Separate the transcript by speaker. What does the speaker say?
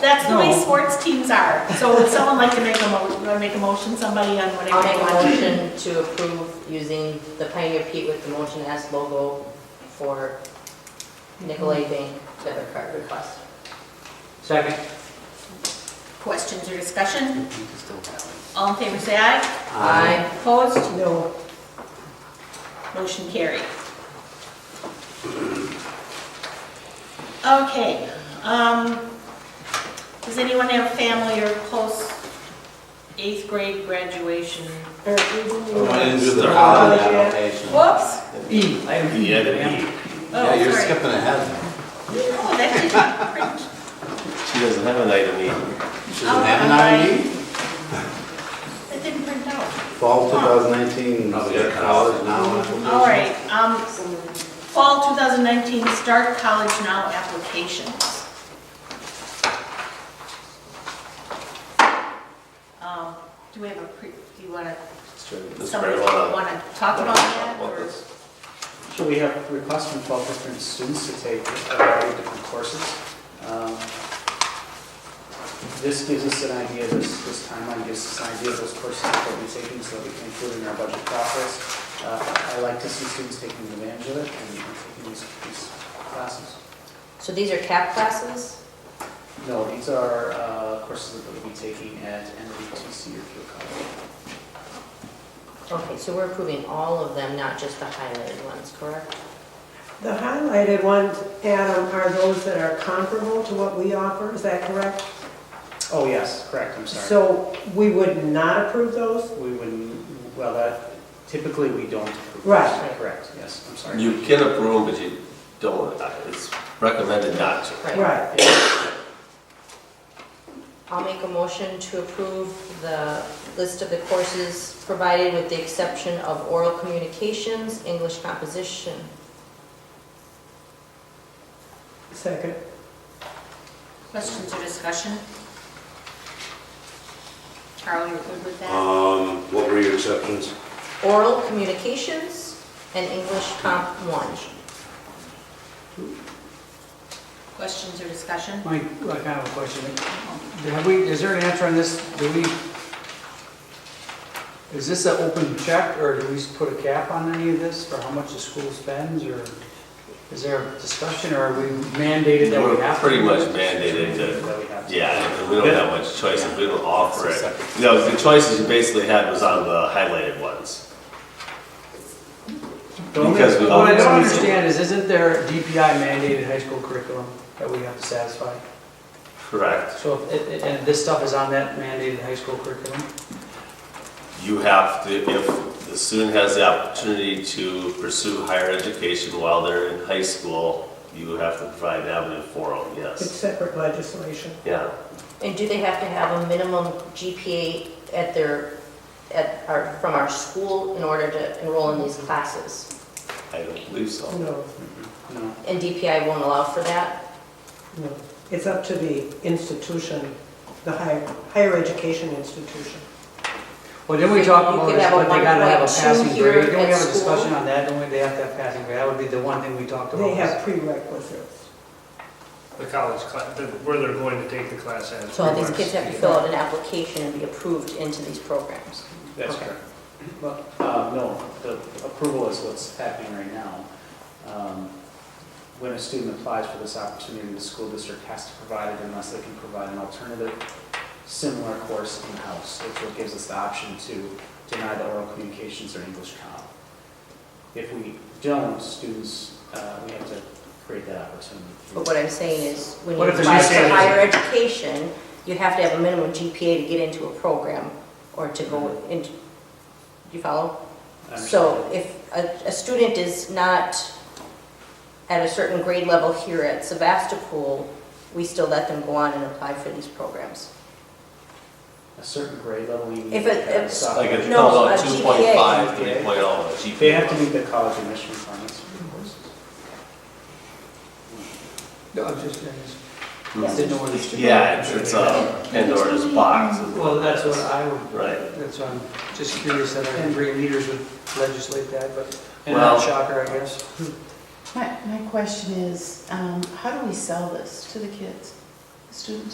Speaker 1: that's the way
Speaker 2: No.
Speaker 1: sports teams are. So would someone like to make a mo, make a motion, somebody on
Speaker 3: I'll
Speaker 1: whatever
Speaker 3: make
Speaker 1: they
Speaker 3: a
Speaker 1: want?
Speaker 3: motion to approve using the Pioneer Pete with the Motion S logo for Nicolay Bank debit card request.
Speaker 2: Second.
Speaker 1: Questions or discussion? All in favor, say aye.
Speaker 3: Aye.
Speaker 1: Opposed? No. Motion carried. Okay, um, does anyone have family or close eighth grade graduation? or-
Speaker 4: I didn't do the
Speaker 2: Start
Speaker 4: holiday
Speaker 2: with that.
Speaker 4: application.
Speaker 1: Whoops,
Speaker 2: E, item E.
Speaker 4: Yeah, the
Speaker 2: ma'am.
Speaker 1: oh,
Speaker 4: Yeah, you're
Speaker 1: sorry.
Speaker 4: skipping ahead.
Speaker 1: Oh, that didn't print.
Speaker 5: She doesn't have an item E.
Speaker 4: She
Speaker 1: Oh,
Speaker 4: doesn't have an ID?
Speaker 1: That didn't print out.
Speaker 4: E? Fall 2019,
Speaker 2: Oh,
Speaker 4: college
Speaker 2: yeah.
Speaker 4: now application.
Speaker 1: All right, um, fall 2019 Start College Now applications. Um, Do we have a, pre? do you want to,
Speaker 5: Does
Speaker 1: somebody
Speaker 5: Brad
Speaker 1: want
Speaker 5: wanna-
Speaker 1: to talk about that?
Speaker 5: What
Speaker 1: or-
Speaker 5: was-
Speaker 6: So we have requests from 12 different students to take a variety of different courses. Um, This gives us an idea, this this timeline gives us an idea of those courses that we'll be taking so that we can include in our budget process. Uh, I like to see students taking advantage of it and taking these these classes.
Speaker 3: So these are cap classes?
Speaker 6: No, these are uh, courses that we'll be taking at NVTC or Pure College.
Speaker 3: Okay, so we're approving all of them, not just the highlighted ones, correct?
Speaker 7: The highlighted ones, Adam, are those that are comparable to what we offer, is that correct?
Speaker 6: Oh, yes, correct, I'm sorry.
Speaker 7: So we would not approve those?
Speaker 6: We would, well, that- typically we don't. approve those.
Speaker 7: Right.
Speaker 6: Correct, yes, I'm sorry.
Speaker 5: You can approve, but you don't, it's recommended not to.
Speaker 7: Right.
Speaker 3: I'll make a motion to approve the list of the courses provided with the exception of oral communications, English composition.
Speaker 7: Second.
Speaker 1: Questions or discussion? Carl, you're good with
Speaker 4: Uh.
Speaker 1: that?
Speaker 8: Um, what were your exceptions?
Speaker 3: Oral communications and English comp one.
Speaker 1: Questions or discussion?
Speaker 2: Mike, I have a question. Have we, is there an answer on this? Do we, is this an open check or do we put a cap on any of this for how much the school spends or is there a discussion or are we mandated that we
Speaker 5: We're
Speaker 2: have to?
Speaker 5: pretty
Speaker 2: do
Speaker 5: much
Speaker 2: this?
Speaker 5: mandated to,
Speaker 6: That we have to-
Speaker 5: yeah, and we don't have much choice, and we don't offer it. No, the choices you basically had was on the highlighted ones.
Speaker 2: The only-
Speaker 5: Because we-
Speaker 2: What I don't understand is, isn't there DPI mandated high school curriculum that we have to satisfy?
Speaker 5: Correct.
Speaker 2: So, if- it- it- and this stuff is on that mandated high school curriculum?
Speaker 5: You have to, if the student has the opportunity to pursue higher education while they're in high school, you have to provide an avenue for them,
Speaker 7: It's
Speaker 5: yes.
Speaker 7: separate legislation.
Speaker 5: Yeah.
Speaker 3: And do they have to have a minimum GPA at their, at our, from our school in order to enroll in these classes?
Speaker 5: I don't believe so.
Speaker 7: Oh, No,
Speaker 6: No,
Speaker 3: And DPI won't allow for that?
Speaker 7: no. It's up to the institution, the higher, higher education institution.
Speaker 2: Well, didn't we talk
Speaker 3: You
Speaker 2: about
Speaker 3: could
Speaker 2: this,
Speaker 3: have a
Speaker 2: but they gotta have a
Speaker 3: 1.2
Speaker 2: passing
Speaker 3: here
Speaker 2: grade? Don't we
Speaker 3: at
Speaker 2: have a
Speaker 3: school?
Speaker 2: discussion on that? Don't we, they have to have passing grade? That would be the one thing we talked about.
Speaker 7: They have prerequisites.
Speaker 9: the college class, where they're going to take the class as.
Speaker 3: So all these kids have to fill out an application and be approved into these programs?
Speaker 6: that's
Speaker 3: Okay.
Speaker 6: correct. Well, uh, no, the approval is what's happening right now. Um, When a student applies for this opportunity, the school district has to provide it unless they can provide an alternative similar course in-house, which what gives us the option to deny the oral communications or English comp. If we don't, students, uh, we have to create that opportunity.
Speaker 3: But what I'm saying is, when you
Speaker 2: What if
Speaker 3: apply
Speaker 9: there's
Speaker 3: for
Speaker 9: no
Speaker 3: higher education, you have to have a minimum GPA to get into a program or to go into, you follow?
Speaker 6: I understand.
Speaker 3: So if a, a student is not at a certain grade level here at Sebastopol, we still let them go on and apply for these programs.
Speaker 6: A certain grade level, we need
Speaker 3: If
Speaker 6: to
Speaker 3: it-
Speaker 6: have a
Speaker 3: if-
Speaker 5: Like
Speaker 6: sophomore.
Speaker 5: it
Speaker 3: No,
Speaker 5: comes
Speaker 3: a
Speaker 5: out
Speaker 3: GPA.
Speaker 5: two point five, three point oh, GPA.
Speaker 6: They have to meet the college admission requirements for the courses.
Speaker 2: No, I'm just curious.
Speaker 5: Hmm.
Speaker 2: Didn't know where this-
Speaker 5: Yeah, it's, it's a Pandora's box. is
Speaker 2: Well, that's what
Speaker 5: it
Speaker 2: I would,
Speaker 5: Right.
Speaker 2: that's, why I'm just curious that our great leaders would legislate that, but, and
Speaker 5: Well-
Speaker 2: not shocker, I guess.
Speaker 10: My, my question is, um, how do we sell this to the kids, the students?